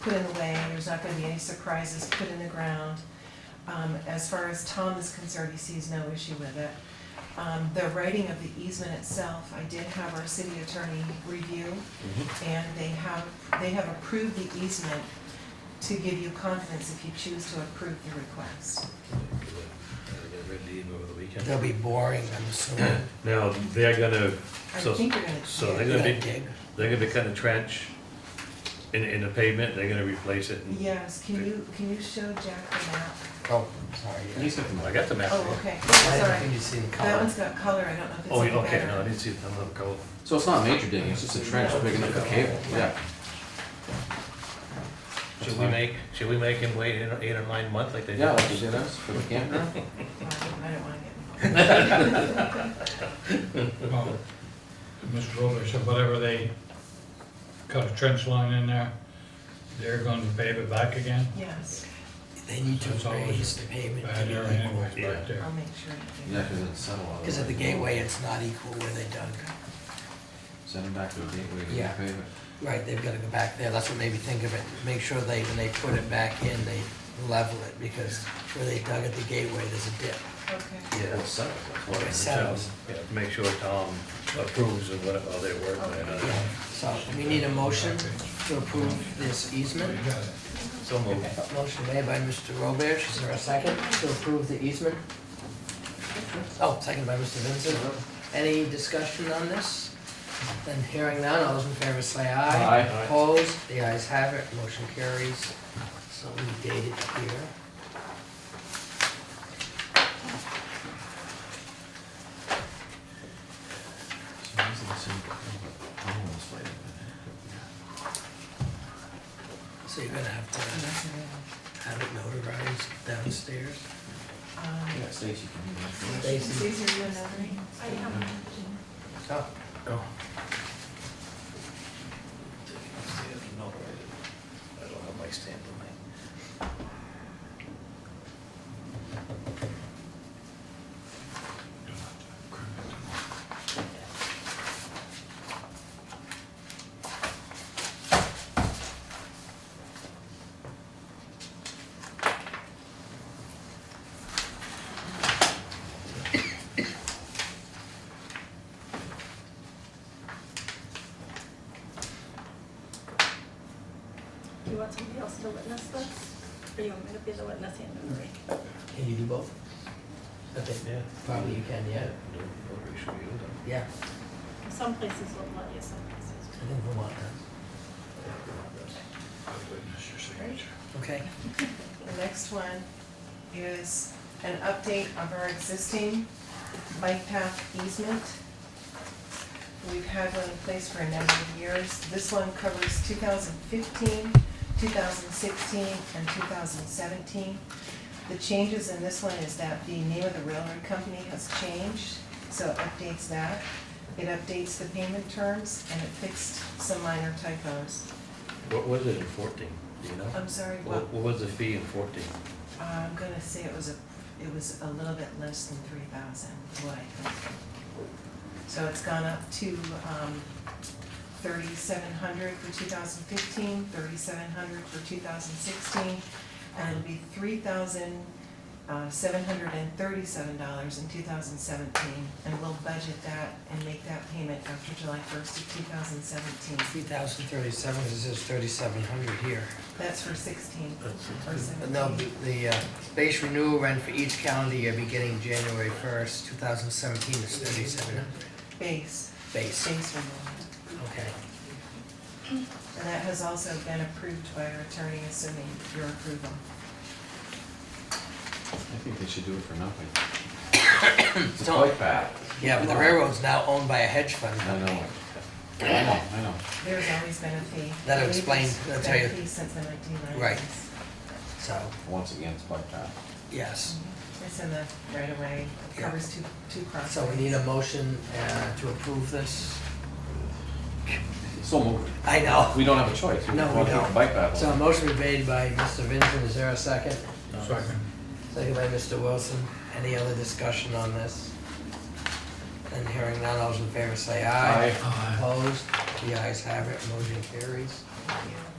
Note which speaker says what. Speaker 1: put in the way, and there's not gonna be any surprises put in the ground. Um, as far as Tom is concerned, he sees no issue with it. Um, the writing of the easement itself, I did have our city attorney review,
Speaker 2: Mm-hmm.
Speaker 1: and they have, they have approved the easement to give you confidence if you choose to approve the request.
Speaker 2: They're gonna read the email over the
Speaker 3: They'll
Speaker 2: weekend.
Speaker 3: be boring, I'm assuming.
Speaker 2: Now, they're gonna,
Speaker 1: I
Speaker 2: so,
Speaker 1: think you're gonna.
Speaker 2: so they're
Speaker 3: Gonna
Speaker 2: gonna be,
Speaker 3: dig.
Speaker 2: they're gonna be cutting a trench in, in the pavement, they're gonna replace it. and-
Speaker 1: Yes, can you, can you show Jack the map?
Speaker 3: Oh, sorry. yeah.
Speaker 2: I got the map.
Speaker 1: Oh, okay,
Speaker 3: I didn't think
Speaker 1: sorry.
Speaker 3: you see the
Speaker 1: That
Speaker 3: color.
Speaker 1: one's got color, I don't know if it's
Speaker 2: Oh,
Speaker 1: any
Speaker 2: yeah,
Speaker 1: better.
Speaker 2: okay, no, I didn't see, it. I don't have a color.
Speaker 4: So it's not major digging, it's just a trench big enough for cable, yeah. That's
Speaker 2: Should we
Speaker 4: fine.
Speaker 2: make, should we make him wait eight or- eight or nine months like they did?
Speaker 4: Yeah, like you did us for the campground.
Speaker 1: Well, I don't wanna get involved.
Speaker 5: Well, Mr. Roder said whatever they cut a trench line in there, they're going to pave it back again.
Speaker 1: Yes,
Speaker 3: They need
Speaker 5: That's
Speaker 3: to
Speaker 5: always
Speaker 3: raise the pavement to
Speaker 5: Bad area
Speaker 3: be equal.
Speaker 5: anyways, back there.
Speaker 1: I'll make sure. you do.
Speaker 4: Yeah, because it's settled. all
Speaker 3: Because at
Speaker 4: way.
Speaker 3: the gateway, it's not equal where they dug.
Speaker 4: Send them back to the gateway to
Speaker 3: Yeah.
Speaker 4: repave it.
Speaker 3: Right, they've gotta go back there, that's what made me think of it. Make sure they, when they put it back in, they level it, because where they dug at the gateway, there's a dip.
Speaker 1: Okay,
Speaker 4: Well, it's settled, that's what
Speaker 3: Where
Speaker 4: it
Speaker 3: it
Speaker 4: is.
Speaker 3: settles.
Speaker 2: Yeah, make sure Tom approves of what, how they work on
Speaker 3: Yeah.
Speaker 2: it.
Speaker 3: So we need a motion to approve this
Speaker 5: So
Speaker 3: easement.
Speaker 5: you got it.
Speaker 2: So moved.
Speaker 3: Motion made by Mr. Roberge, is there a second to approve the easement? Oh, second by Mr. Vincent. Any discussion on this? Then hearing none, all those in favor say aye.
Speaker 4: Aye.
Speaker 3: Opposed, the ayes have it, motion carries. So we date it here.
Speaker 4: So these are the same- oh, I'm almost late.
Speaker 3: So you're gonna have to
Speaker 1: that's it.
Speaker 3: have it notarized downstairs.
Speaker 1: Um,
Speaker 4: Yeah, Stacy can do that.
Speaker 1: Is
Speaker 3: Stacy.
Speaker 1: these are you another?
Speaker 3: Oh. Oh.
Speaker 2: I don't have my stamp on me.
Speaker 6: Do you want somebody else to witness this? Or you want me to be the witness and the jury?
Speaker 3: Can you do both? I think,
Speaker 2: Yeah.
Speaker 3: probably you can, yeah.
Speaker 2: No, no, we should be able to.
Speaker 3: Yeah,
Speaker 6: Some places will let you, some places
Speaker 3: I think Vermont does.
Speaker 5: I witness your signature.
Speaker 3: Okay.
Speaker 1: The next one is an update of our existing bike path easement. We've had one in place for a number of years. This one covers 2015, 2016, and 2017. The changes in this one is that the name of the railroad company has changed, so it updates that. It updates the payment terms, and it fixed some minor typos.
Speaker 2: What was it in fourteen, do you know?
Speaker 1: I'm sorry, what?
Speaker 2: What, what was the fee in fourteen?
Speaker 1: I'm gonna say it was a, it was a little bit less than three thousand, what I think. So it's gone up to, um, thirty-seven hundred for two thousand fifteen, thirty-seven hundred for two thousand sixteen, and it'll be three thousand, uh, seven hundred and thirty-seven dollars in two thousand seventeen, and we'll budget that and make that payment after July first of two thousand seventeen.
Speaker 3: Three thousand thirty-seven, it says thirty-seven hundred here.
Speaker 1: That's for sixteen, or
Speaker 3: And they'll
Speaker 1: seventeen.
Speaker 3: be, the, uh, base renewal rent for each calendar year beginning January first, two thousand seventeen is thirty-seven hundred.
Speaker 1: Base,
Speaker 3: Base,
Speaker 1: base removal.
Speaker 3: okay.
Speaker 1: And that has also been approved by our attorney, assuming your approval.
Speaker 4: I think they should do it for nothing. It's a
Speaker 3: Don't-
Speaker 4: bike path.
Speaker 3: Yeah, but the railroad's now owned by a hedge fund
Speaker 4: I know
Speaker 3: company.
Speaker 4: it. I know, I know.
Speaker 1: There's always been a fee.
Speaker 3: That'll explain-
Speaker 1: It's
Speaker 3: that'll
Speaker 1: been a
Speaker 3: tell you.
Speaker 1: fee since the nineteen nineties.
Speaker 3: Right. So,
Speaker 4: Once again, it's bike path.
Speaker 3: yes.
Speaker 1: It's in the right of way, It covers two, two crossways.
Speaker 3: So we need a motion, uh, to approve this.
Speaker 4: So moved.
Speaker 3: I know.
Speaker 4: We don't have a choice.
Speaker 3: No, we
Speaker 4: want to do
Speaker 3: don't.
Speaker 4: Bike path.
Speaker 3: So a motion was made by Mr. Vincent, is there a second?
Speaker 5: Second.
Speaker 3: Second by Mr. Wilson. Any other discussion on this? And hearing none, all those in favor say aye.
Speaker 4: Aye.
Speaker 3: Opposed? The ayes have it, motion carries.
Speaker 1: Thank you.